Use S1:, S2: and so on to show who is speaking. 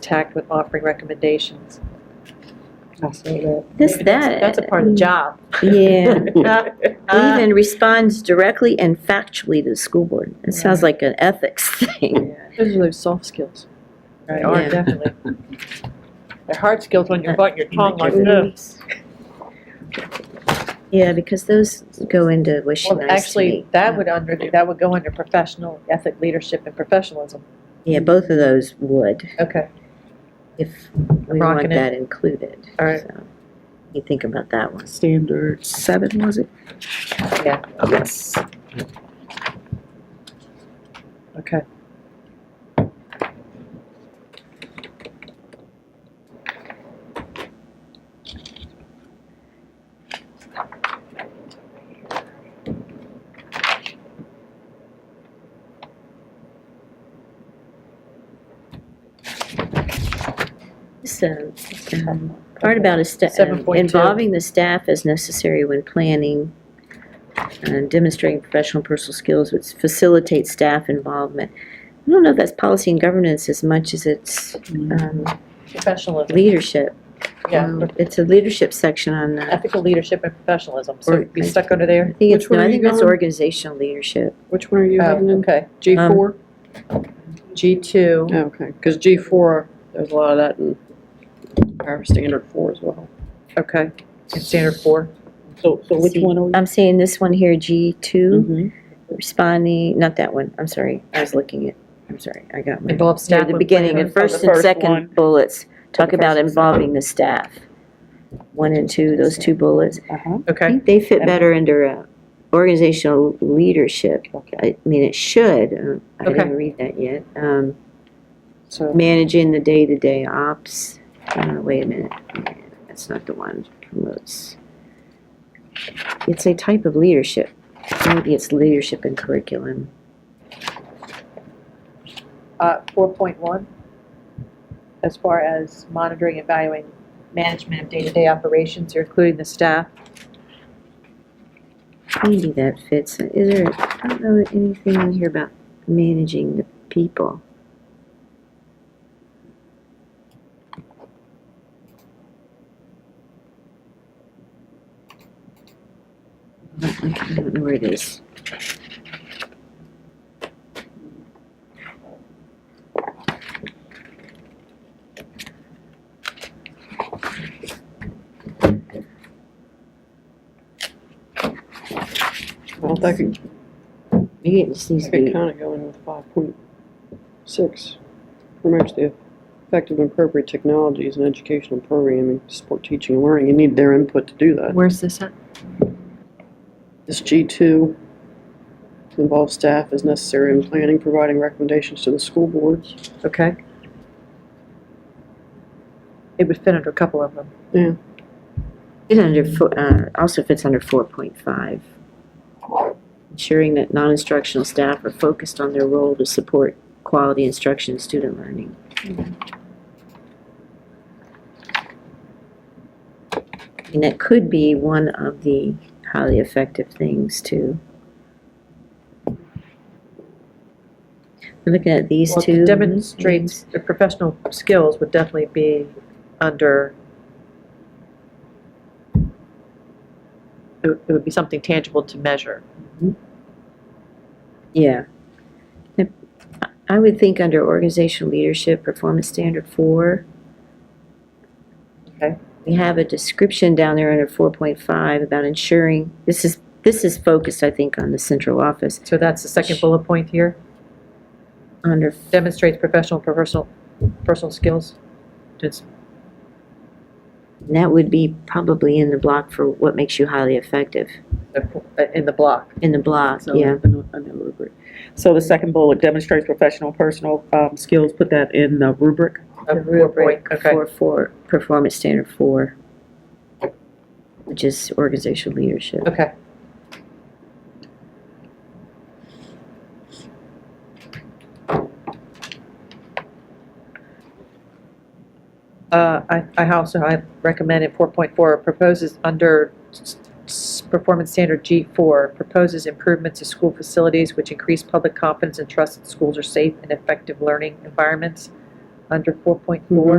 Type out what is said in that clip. S1: tact with offering recommendations.
S2: I see that.
S3: This, that.
S1: That's a part of the job.
S3: Yeah.
S1: Uh,
S3: Even responds directly and factually to the school board. It sounds like an ethics thing.
S1: Those are those soft skills. They
S2: Right.
S1: are,
S3: Yeah.
S1: definitely. They're hard skills when you're biting your tongue like this.
S3: Yeah, because those go into wishy
S1: Well,
S3: nice to
S1: actually,
S3: me.
S1: that would under, that would go under professional, ethic, leadership, and professionalism.
S3: Yeah, both of those would,
S1: Okay.
S3: if we want
S1: Rocking it.
S3: that included.
S1: All right.
S3: So, You think about that one.
S2: Standard seven, was it?
S1: Yeah,
S2: Yes.
S1: okay.
S3: So, uh, um, part about a sta- um,
S1: 7.2.
S3: involving the staff as necessary when planning and demonstrating professional and personal skills which facilitate staff involvement. I don't know if that's policy and governance as much as it's um,
S1: Professionalism,
S3: leadership.
S1: yeah.
S3: Um, It's a leadership section on that.
S1: Ethical leadership and professionalism, so be stuck under
S3: I
S1: there?
S3: think it's,
S2: Which one
S3: no, I
S2: are
S3: think
S2: you
S3: that's
S2: going?
S3: organizational leadership.
S2: Which one are you having
S1: Oh,
S2: in?
S1: okay.
S2: G four?
S1: G2,
S2: Oh, Okay, because G four, there's a lot of that in our standard four as well.
S1: okay, and standard four.
S2: So, so which
S3: See.
S2: one are we?
S3: I'm saying this one here, G2,
S2: Mhm.
S3: responding, not that one, I'm sorry, I was looking at, I'm sorry, I got my.
S1: Involve staff.
S3: at the
S1: when
S3: beginning,
S1: planning-
S3: at first
S2: the
S3: and
S2: first one.
S3: second bullets, talk
S2: The
S3: about
S2: first and
S3: involving the staff. One and two, those two bullets.
S2: Uh-huh.
S3: I
S1: Okay,
S3: think they fit better under uh, organizational leadership. I mean, it should, uh, I
S1: Okay.
S3: didn't read that yet. Um,
S2: So,
S3: Managing the day-to-day ops, uh, wait a minute, that's not the one, promotes. It's a type of leadership, maybe it's leadership and curriculum.
S1: uh, 4.1, as far as monitoring, and evaluating, management of day-to-day operations, you're including the staff.
S3: Maybe that fits. Is there, I don't know anything in here about managing the people. I don't like- I don't know where it is.
S2: well, that could,
S3: Maybe it just needs
S2: that
S3: to
S2: could
S3: be,
S2: kind of go in with five point six. Promotes the effective and appropriate technologies and educational programming to support teaching and learning. You need their input to do that.
S1: Where's this at?
S2: This G2 involves staff as necessary in planning, providing recommendations to the school boards.
S1: Okay. It would fit under a couple of them.
S3: it under, fo- uh, also fits under four point five. Ensuring that non-instructional staff are focused on their role to support quality instruction and student learning. And that could be one of the highly effective things too. I'm looking at these
S1: Well,
S3: two.
S1: to demonstrate the professional skills would definitely be under, it would- it would be something tangible to measure.
S3: Yeah. I- I would think under organizational leadership, performance standard four.
S1: Okay.
S3: We have a description down there under four point five about ensuring, this is, this is focused, I think, on the central office.
S1: So that's the second bullet point here,
S3: Under,
S1: demonstrates professional, personal, personal skills. It's
S3: that would be probably in the block for what makes you highly effective,
S1: in the block.
S3: in the block,
S4: So,
S3: yeah.
S4: I know- I know rubric. So the second bullet demonstrates professional, personal um, skills, put that in the rubric.
S1: of four point- Okay,
S3: Four, four, performance standard four, which is organizational leadership.
S1: okay. Uh, I, I also, I recommended 4.4 proposes under s- s- performance standard G4, proposes improvements to school facilities which increase public confidence and trust that schools are safe and effective learning environments. under 4.4.